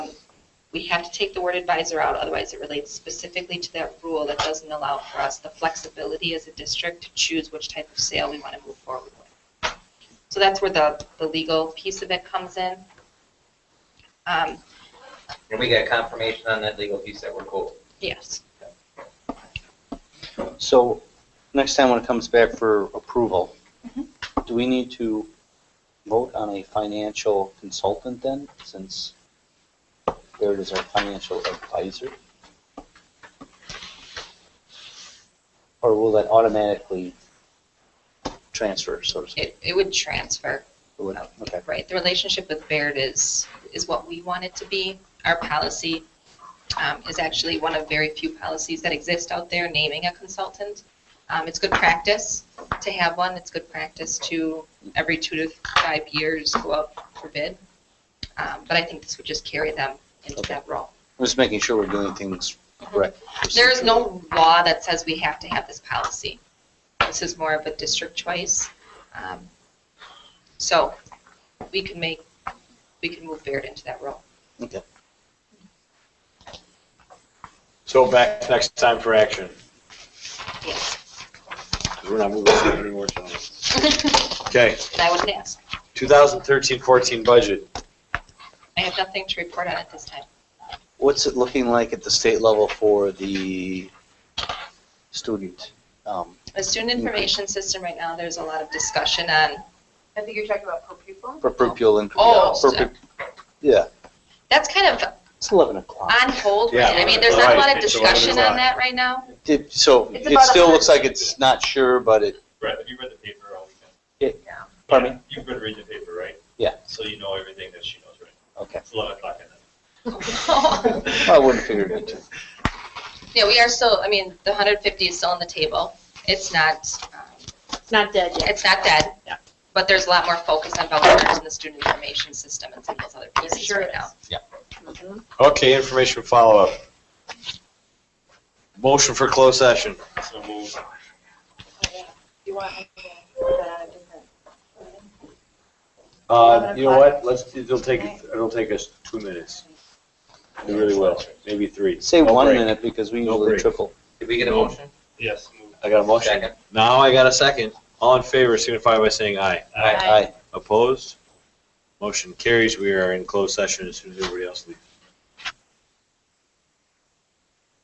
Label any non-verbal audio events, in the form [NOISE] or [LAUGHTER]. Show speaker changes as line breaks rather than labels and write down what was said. we have to take the word advisor out, otherwise it relates specifically to that rule that doesn't allow for us the flexibility as a district to choose which type of sale we want to move forward with. So that's where the, the legal piece of it comes in. Um,
And we got confirmation on that legal piece that we're cool.
Yes,
So, next time when it comes back for approval,
Mhm.
do we need to vote on a financial consultant then, since there it is, our financial advisor? Or will that automatically transfer, so to speak?
it, it would transfer,
It would- Okay,
right? The relationship with Baird is, is what we want it to be. Our policy um, is actually one of very few policies that exist out there naming a consultant. Um, It's good practice to have one. It's good practice to, every two to five years, go out for bid. Um, But I think this would just carry them into
Okay.
that role.
I'm just making sure we're doing things correct.
There is no law that says we have to have this policy. This is more of a district choice. Um, So we can make, we can move Baird into that role.
Okay.
So back next time for action,
Yes.
'cause we're not moving on anymore. so. Okay,
I would ask.
2013-14 budget.
I have nothing to report on at this time.
What's it looking like at the state level for the student? um,
The student
Mm-hmm.
information system right now, there's a lot of discussion on,
I think you're talking about per pupil?
For pupil and.
Oh,
for pu- Yeah,
that's kind of
it's 11 o'clock.
on hold. right?
Yeah,
I mean, there's not a lot
right,
of
it's eleven
discussion on
o'clock.
that right now.
Did- So
It's
it
about
still looks
100.
like it's not sure, but it,
Brett, have you read the paper all weekend?
pardon me?
You've been reading the paper, right?
Yeah.
So you know everything that she knows, right?
Okay,
It's 11 o'clock at night.
I wouldn't figure it out.
[LAUGHS] Yeah, we are still, I mean, the 150 is still on the table. It's not, um,
It's not dead yet.
It's not dead. But there's a lot more focus on vouchers and the student information system and some of those other pieces
Sure
right
is.
now.
Mhm.
Okay, information follow-up. Motion for closed session.
So move.
You want me to put that on a different-
Uh, You know what, let's, it'll take, it'll take us two minutes. It really will, maybe three.
Say
No
one
break.
minute because we
No
usually
break.
triple.
Did we get a
No.
motion?
Yes, move.
I got a motion.
Second.
Now I got a second. All in favor signify by saying aye.
Aye.
Opposed? Motion carries. We are in closed session as soon as everybody else leaves.